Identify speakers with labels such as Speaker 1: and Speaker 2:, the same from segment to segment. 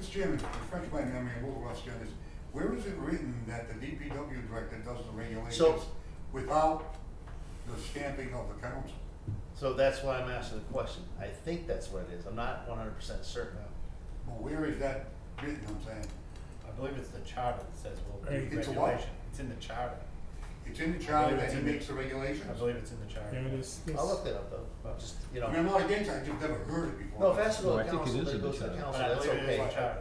Speaker 1: Mr. Chairman, refresh my memory, what we're asking is, where is it written that the DPW director does the regulations without the stamping of the council?
Speaker 2: So that's why I'm asking the question. I think that's what it is. I'm not one hundred percent certain.
Speaker 1: But where is that written, I'm saying?
Speaker 3: I believe it's the charter that says we'll do
Speaker 1: It's a
Speaker 3: regulation.
Speaker 1: what?
Speaker 3: It's in the charter.
Speaker 1: It's in the charter that
Speaker 3: it's
Speaker 1: he
Speaker 3: in the-
Speaker 1: makes the regulations?
Speaker 3: I believe it's in the charter.
Speaker 4: Yeah, this, this.
Speaker 2: I'll look that up though, just, you
Speaker 1: I mean, I'm
Speaker 2: know.
Speaker 1: not against it, I just never heard it before.
Speaker 2: No, if that's to
Speaker 5: No,
Speaker 2: the
Speaker 5: I think it
Speaker 2: council,
Speaker 5: is
Speaker 2: then it
Speaker 5: in the
Speaker 2: goes to the
Speaker 5: charter.
Speaker 2: council,
Speaker 3: But I
Speaker 2: that's
Speaker 3: believe it is in the
Speaker 2: okay.
Speaker 3: charter.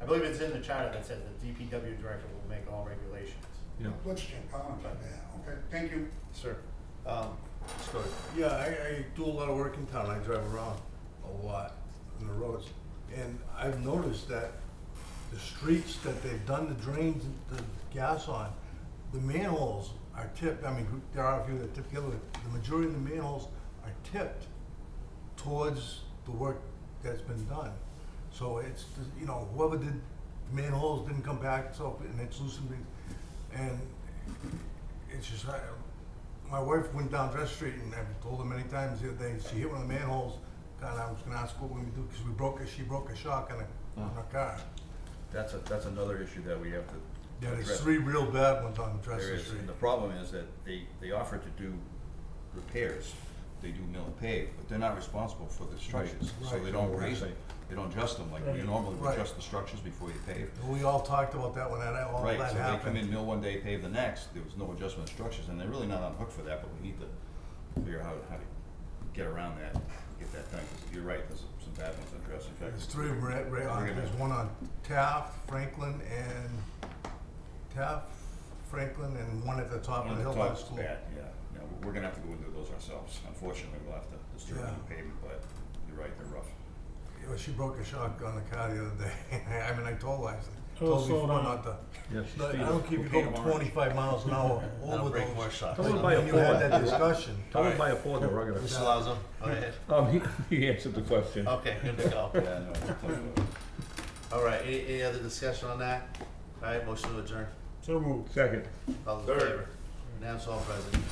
Speaker 3: I believe it's in the charter that says the DPW director will make all regulations.
Speaker 5: Yeah,
Speaker 1: Let's check, I'll check that, okay, thank you.
Speaker 2: Sure. Um, let's go to-
Speaker 6: Yeah, I, I do a lot of work in town. I drive around a lot on the roads. And I've noticed that the streets that they've done the drains, and the gas on, the manholes are tipped. I mean, there are a few that tip the other way. The majority of the manholes are tipped towards the work that's been done. So it's, you know, whoever did manholes didn't come back, so, and it's loosened. it. And it's just, I, my wife went down Dress Street and I've told her many times the other day, she hit one of the manholes. God, I was gonna ask what we would do, because we broke a, she broke a shock on a,
Speaker 5: Uh-huh.
Speaker 6: on a car.
Speaker 5: that's a, that's another issue that we have to
Speaker 6: Yeah, there's
Speaker 5: address.
Speaker 6: three real bad ones on Dress
Speaker 5: There is,
Speaker 6: Street.
Speaker 5: and the problem is that they, they offer to do repairs, they do mill and pave, but they're not responsible for the structures, so
Speaker 6: Right.
Speaker 5: they don't
Speaker 6: Right.
Speaker 5: raise them, they don't adjust them, like we
Speaker 4: Right.
Speaker 5: normally would
Speaker 6: Right.
Speaker 5: adjust the structures before you pave.
Speaker 6: We all talked about that when that, all that
Speaker 5: Right,
Speaker 6: happened.
Speaker 5: so they come in, mill one day, pave the next, there was no adjustment of structures, and they're really not on hook for that, but we need to figure out how to get around that, get that done, because you're right, there's some bad ones on Dress, in fact.
Speaker 6: There's three right, right on,
Speaker 5: We're gonna-
Speaker 6: there's one on Taft, Franklin, and Taft, Franklin, and one at the top of
Speaker 5: One
Speaker 6: the hill
Speaker 5: of the
Speaker 6: by the
Speaker 5: tops,
Speaker 6: school.
Speaker 5: bad, yeah. No, we- we're gonna have to go and do those ourselves. Unfortunately, we'll have to disturb the
Speaker 6: Yeah.
Speaker 5: new pavement, but you're right, they're rough.
Speaker 6: You know, she broke a shock on the car the other day, I mean, I told her, I said,
Speaker 4: Oh,
Speaker 6: told her
Speaker 4: slow
Speaker 6: before
Speaker 4: down.
Speaker 6: not to.
Speaker 5: Yeah,
Speaker 6: No, I don't keep you going twenty-five miles an hour
Speaker 2: That'll
Speaker 6: over
Speaker 2: break more
Speaker 6: those.
Speaker 2: shots.
Speaker 5: Come on.
Speaker 6: Like,
Speaker 5: by a
Speaker 6: When you had
Speaker 5: Ford.
Speaker 6: that discussion,
Speaker 5: Tell them
Speaker 2: buy
Speaker 5: a Ford, they're gonna.
Speaker 2: Mr. Lazo, go ahead.
Speaker 7: Um, he, he answered the question.
Speaker 6: Uh,
Speaker 2: Okay, good to go.
Speaker 5: Yeah, no, it's a tough one.
Speaker 2: All right, any, any other discussion on that? All right, motion to adjourn.
Speaker 4: So moved.
Speaker 7: Second.
Speaker 2: All in favor? Now it's all present.